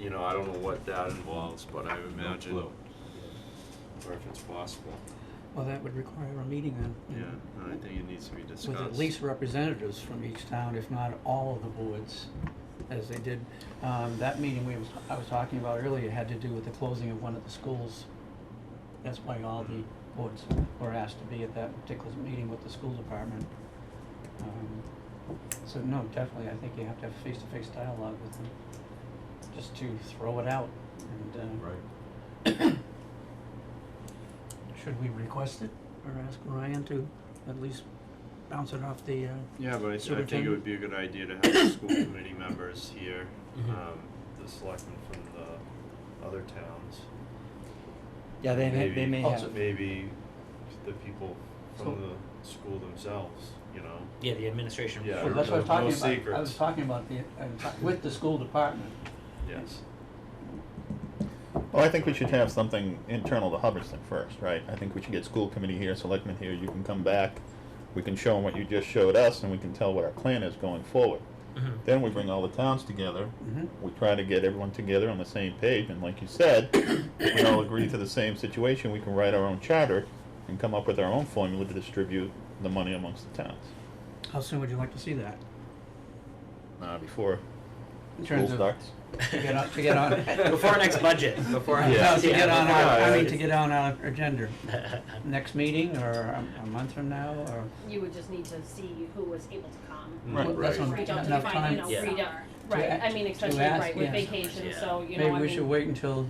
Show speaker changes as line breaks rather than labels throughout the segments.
you know, I don't know what that involves, but I would imagine.
clue.
Or if it's possible,
Well, that would require a meeting then.
yeah, and I think it needs to be discussed.
With at least representatives from each town, if not all of the boards, as they did. Um, that meeting we was, I was talking about earlier had to do with the closing of one of the schools. That's why all the boards were asked to be at that particular meeting with the school department. Um, So no, definitely, I think you have to have face-to-face dialogue with them, just to throw it out and, uh,
Right.
Should we request it or ask Ryan to at least bounce it off the, uh,
Yeah, but I, th- I think it
Superintendent?
would be a good idea to have the school committee members here,
Mm-hmm.
Mhm.
um, the selectmen from the other towns.
yeah, they may, they
Maybe-
Oh,
may have.
Maybe the people from
So-
the school themselves, you know,
Yeah, the administration.
Yeah,
Well, that's what I
no
was talking about. I
secrets.
was talking about the, I'm ta- with the school department.
yes.
Well, I think we should have something internal to Hubbardston first, right? I think we should get school committee here, selectmen here, you can come back, we can show them what you just showed us, and we can tell what our plan is going forward.
Mhm.
Then we bring all the towns together,
Mhm.
we try to get everyone together on the same page, and like you said, if we all agree to the same situation, we can write our own charter and come up with our own formula to distribute the money amongst the towns.
How soon would you like to see that?
Uh, before
In
school
terms of,
starts.
to get on, to get on.
Before our next budget, before. our
No,
next-
to get on our,
Yeah,
I
yeah.
mean, to get on our agenda, next meeting or a- a month from now or?
You would just need to see who was able to come.
Right.
Well,
Right.
that's what I'm-
We don't
enough
define, you
time.
know,
Yeah.
freedom, right, I mean,
to
especially,
ask,
right, with
yeah.
vacation,
Yeah.
so, you know, I
Maybe
mean.
we should wait until,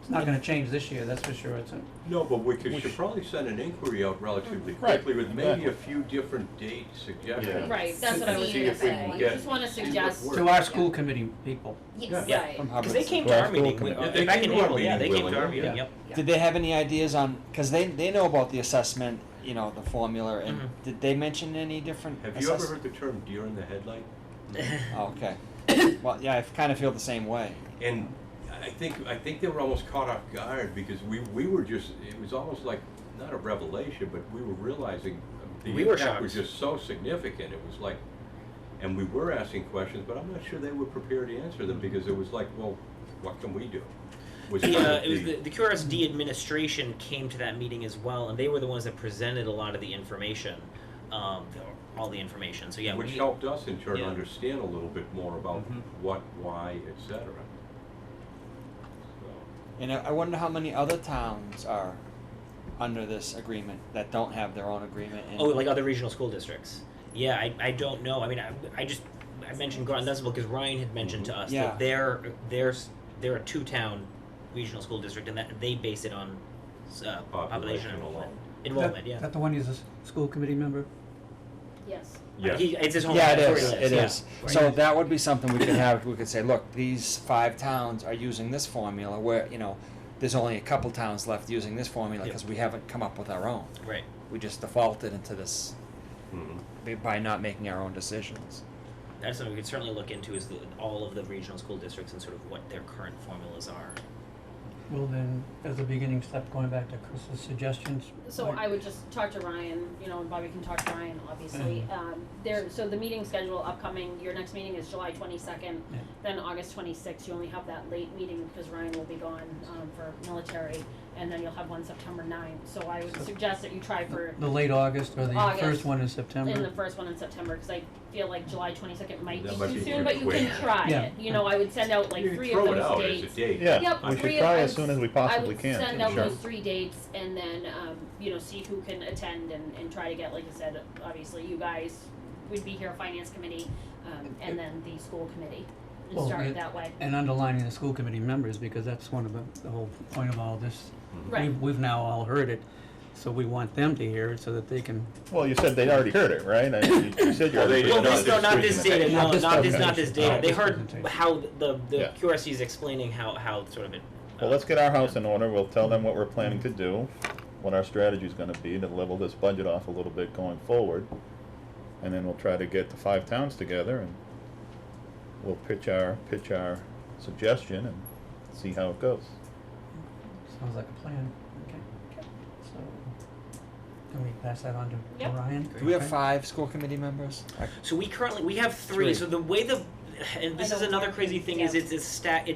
it's not gonna change this year, that's for sure, it's, a-
No, but we could,
We
should
sh-
probably send an inquiry out relatively
Right.
quickly with maybe a few different date suggestions.
Right, that's what I was
See
gonna
if we
say,
can
I
get-
just wanna
see what
suggest,
works.
to our school committee people.
yes,
Yeah.
right,
From Because they came to
Well,
our
school
meeting,
committee.
when-
Yeah, they
back
came
in
to our
April, yeah, they
meeting
came to our
willingly.
meeting,
Yeah.
yep.
Did they have any ideas on, because they, they know about the assessment, you know, the formula, and
Mhm.
did they mention any different?
Have you ever
assess-
heard the term deer in the headlight?
Oh, okay. well, yeah, I kind of feel the same way.
And I think, I think they were almost caught off guard because we, we were just, it was almost like, not a revelation, but we were realizing the
We were
impact was
shocked.
just so significant. It was like, and we were asking questions, but I'm not sure they were prepared to answer them because it was like, well, what can we do? Was
The,
kind
uh,
of
it was the, the QRSD administration came to that meeting as well, and they were the ones that presented a lot of the information, um, all the information. So yeah,
Which
we,
helped us in turn
Yeah.
understand a little bit more about
Mhm.
what, why, et cetera.
And I I wonder how many other towns are under this agreement that don't have their own agreement. And
Oh, like other regional school districts. Yeah, I, I don't know. I mean, I, I just I mentioned Groton Dunstable because Ryan had mentioned to us
Yeah.
that they're they're s- they're a two town regional school district and that they base it on uh, population
Population
enrollment.
alone.
Enrollment,
That-
yeah.
That the one who's a s- school committee member?
yes,
Yeah.
He, it's his home.
Yeah, it
that's where
is.
he lives,
It
yeah.
is. So that would be something we could have. We could say, look, these five towns are using this formula. Where you know, there's only a couple towns left using this formula
Yeah.
because we haven't come up with our own.
Right.
We just defaulted into this
Mhm.
b- by not making our own decisions.
That's something we could certainly look into is the, all of the regional school districts and sort of what their current formulas are.
Well, then, as a beginning step, going back to Chris's suggestions.
so
like-
I would just talk to Ryan, you know, and Bobby can talk to Ryan, obviously,
Mm-hmm.
um, there, so the meeting schedule upcoming, your next meeting is July twenty-second,
Yeah.
then August twenty-sixth, you only have that late meeting because Ryan will be gone, um, for military, and then you'll have one September 9th. so I would suggest that you try for
The late August or the first
August.
one in
in the
September?
first one in September, cause I feel like July twenty-second might
That
be
might
too
be
soon,
too
but you can
quick.
try
Yeah.
it, you know, I would send out like
You can
three of those dates.
Throw it out as a date.
Yeah,
Yep,
we
three
should
of
try
us-
as soon as we possibly can,
I would send
for
out
sure.
those three dates and then, um, you know, see who can attend and, and try to get, like I said, obviously you guys would be here, finance committee, um, and then the school committee. And
Well,
start
yeah.
it that way,
And underlining the school committee members, because that's one of the, the whole point of all this.
right,
We've, we've now all heard it, so we want them to hear it so that they can,
Well, you said they already heard it, right? I mean, you- you said you
Well,
already heard
they
Well,
it.
did
this, no, not this data.
Not
No,
this
not this, not this
presentation.
data. They
Not this
heard
presentation.
how the,
Yeah.
the QRC is explaining how, how sort of it. uh,
Well, let's get our house in order, we'll tell them what we're planning to do, what our strategy's gonna be to level this budget off a little bit going forward. And then we'll try to get the five towns together and we'll pitch our, pitch our suggestion and see how it goes.
sounds like a plan. Okay. So, can we pass that on to- to
Yep.
Ryan?
Do we have
Okay.
five school committee members? I-
So we currently, we have three,
Three.
so the way the, and this
I
is
don't
another
think-
crazy thing is
yeah.
it's, it's stat,